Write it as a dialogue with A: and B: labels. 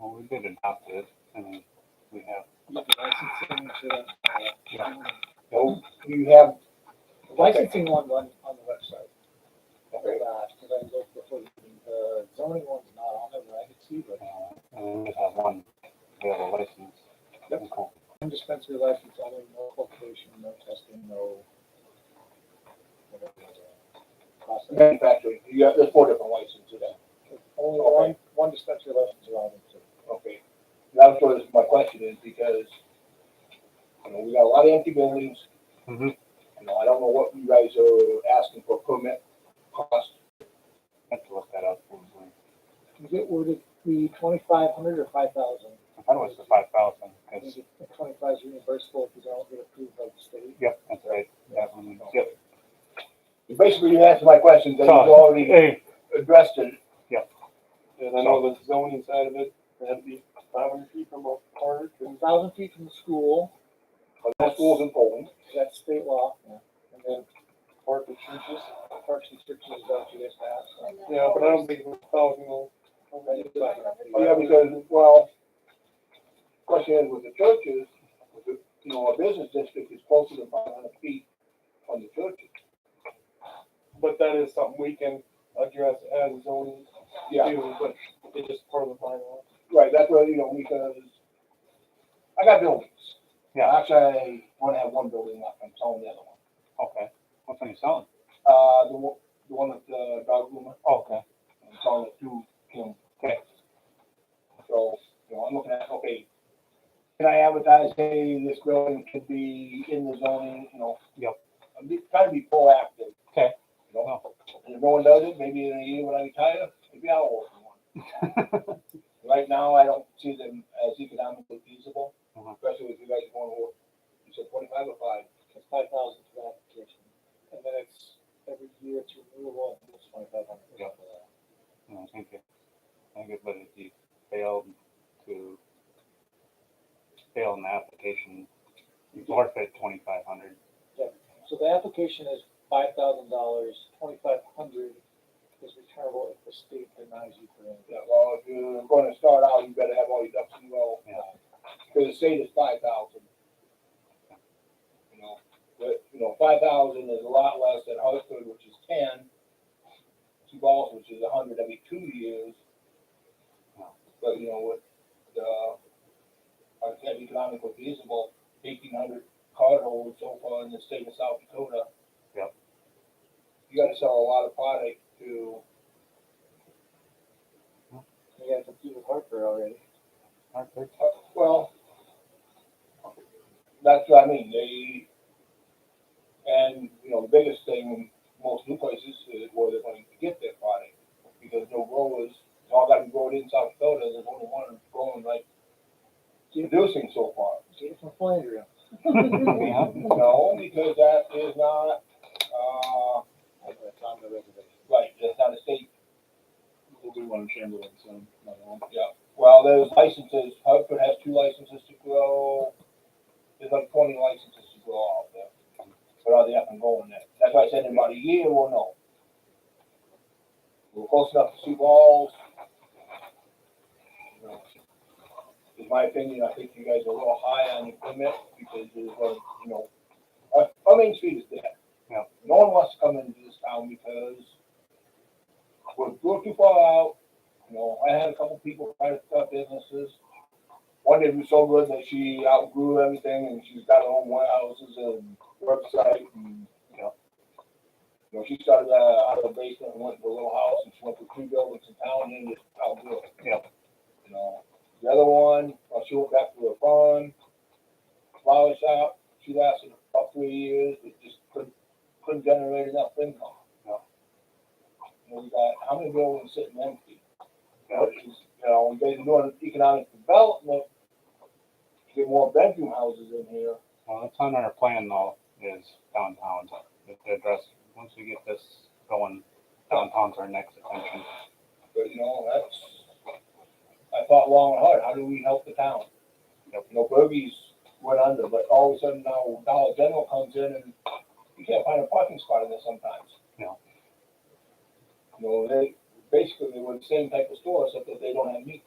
A: we did adopt it, and we have,
B: Licensing to the,
A: yeah. oh,
C: So you have licensing on, on, on the website.
A: uh,
C: Very much, because I looked before, the meeting. the zoning one's not on there, but I could see, but
A: uh, And we just have one, we have a license.
C: Yep.
A: Okay.
C: one dispensary license, only no cultivation, no testing, no. whatever, uh, process.
D: Manufacturing, you have, there's four different ways to do that.
C: Only one, one dispensary license allowed in two.
D: Okay. That's what is, my question is because, you know, we got a lot of empty buildings. Mm-hmm.
A: Mhm.
D: You know, I don't know what you guys are asking for permit cost.
A: I have to look that up. probably.
C: Is it worded the twenty-five hundred or five thousand?
A: I thought it was the five thousand, because,
C: Twenty-five is reimbursable if you don't get approved by the state.
A: yep, that's right. That one, Yep.
D: Basically, you answered my questions and you
A: So,
D: already
A: Hey,
D: addressed it.
E: And I know the zoning side of it, it had to be five hundred feet from a park
C: One
E: and
C: thousand feet from the school,
D: The schools in Poland.
C: that's state law, and then
E: park and churches.
C: Parks and Churches is out to this house.
E: Yeah, but I don't think it was thousand will.
D: Yeah, because, well, question is with the churches, with the- you know, a business district is closer than five hundred feet from the churches.
E: But that is something we can address as zoning
D: Yeah,
E: too, but it's just part of the bylaw.
D: right, that's where, you know, because I got buildings.
A: Yeah.
D: Actually, I wanna have one building left, I'm selling the other one.
A: okay, what's on your selling?
D: Uh, the one, the one uh, at the dog groomer,
A: Okay,
D: I'm selling it to Kim.
A: Okay.
D: So, you know, I'm looking at, okay, can I advertise, hey, this building could be in the zoning, you know?
A: Yep.
D: I'm be- trying to be proactive.
A: Okay.
D: You know? And if no one does it, maybe in a year when I retire, maybe I'll open one. Right now, I don't see them as economically feasible,
A: Uh-huh.
D: especially with you guys going to work. You said twenty-five or five?
C: It's five thousand for that application, and then it's every year it's renewable, and it's twenty-five hundred.
A: Yeah. No, I think it, I think it, but if you failed to fail in the application, you forfeit twenty-five hundred.
C: So the application is five thousand dollars, twenty-five hundred is returnable if the state denies you for any.
D: Yeah, well, if you're gonna start out, you better have all your ducks in a row.
A: Yeah.
D: Cause the state is five thousand. You know, but, you know, five thousand is a lot less than Hartford, which is ten. Two balls, which is a hundred every two years. But, you know, with, uh, our said economically feasible, eighteen hundred cardholders so far in the state of South Dakota.
A: Yep.
D: You gotta sell a lot of product to
C: You gotta compete with Harper already.
D: Uh, Well, that's what I mean, they, and, you know, the biggest thing, in most new places is where they're going to get their product, because no growers, it's all gotta be grown in South Dakota, there's only one growing like, producing so far.
C: Get it from Flandria.
A: Yeah.
D: No, because that is not, uh,
C: It's on the reservation.
D: right, that's not a state. We'll do one in Chamberlain soon, Yeah, well, there's licenses, Hartford has two licenses to grow, there's like twenty licenses to grow out there. But are they up and going there? That's why I said in about a year, we'll know. We're close enough to see balls. You know, In my opinion, I think you guys are a little high on your permit, because there's, uh, you know, our, our main street is dead.
A: Yeah.
D: No one wants to come into this town because we're, we're too far out. You know, I had a couple people try to start businesses. One did so good that she outgrew everything and she's got her own warehouses and website and, you know. You know, she started uh, out of the basement and went to a little house and she went to three buildings in town and just outgrew it.
A: Yeah.
D: You know, the other one, well, she went back to her farm, flower shop. She lasted about three years, but just couldn't, couldn't generate enough income. You know, we got how many buildings sitting empty? Which is, you know, we've been doing economic development, to get more bedroom houses in here.
A: Well, that's on our plan though, is downtown, If the address, once we get this going, downtown's our next attention.
D: But, you know, that's, I thought long and hard, how do we help the town? You know, Burgies went under, but all of a sudden now Dollar General comes in and you can't find a parking spot in there sometimes.
A: Yeah.
D: You know, they, basically, they were the same type of store, except that they don't have meat.